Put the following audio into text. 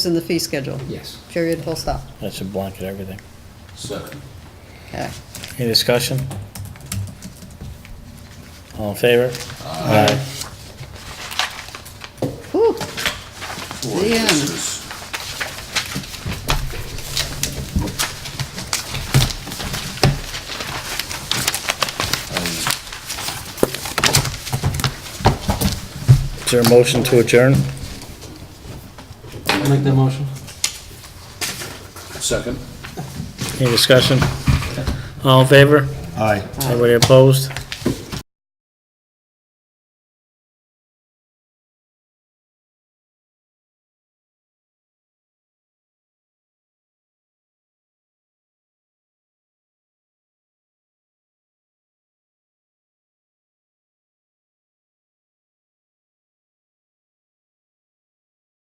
It's in the fee schedule, Yes. period, full stop. That should blanket everything. Second. Okay. Any discussion? All in favor? Aye. Whew, Boy, The end. this is- Is there a motion to adjourn? I'll make that motion. Second. Any discussion? All in favor? Aye. Anybody opposed?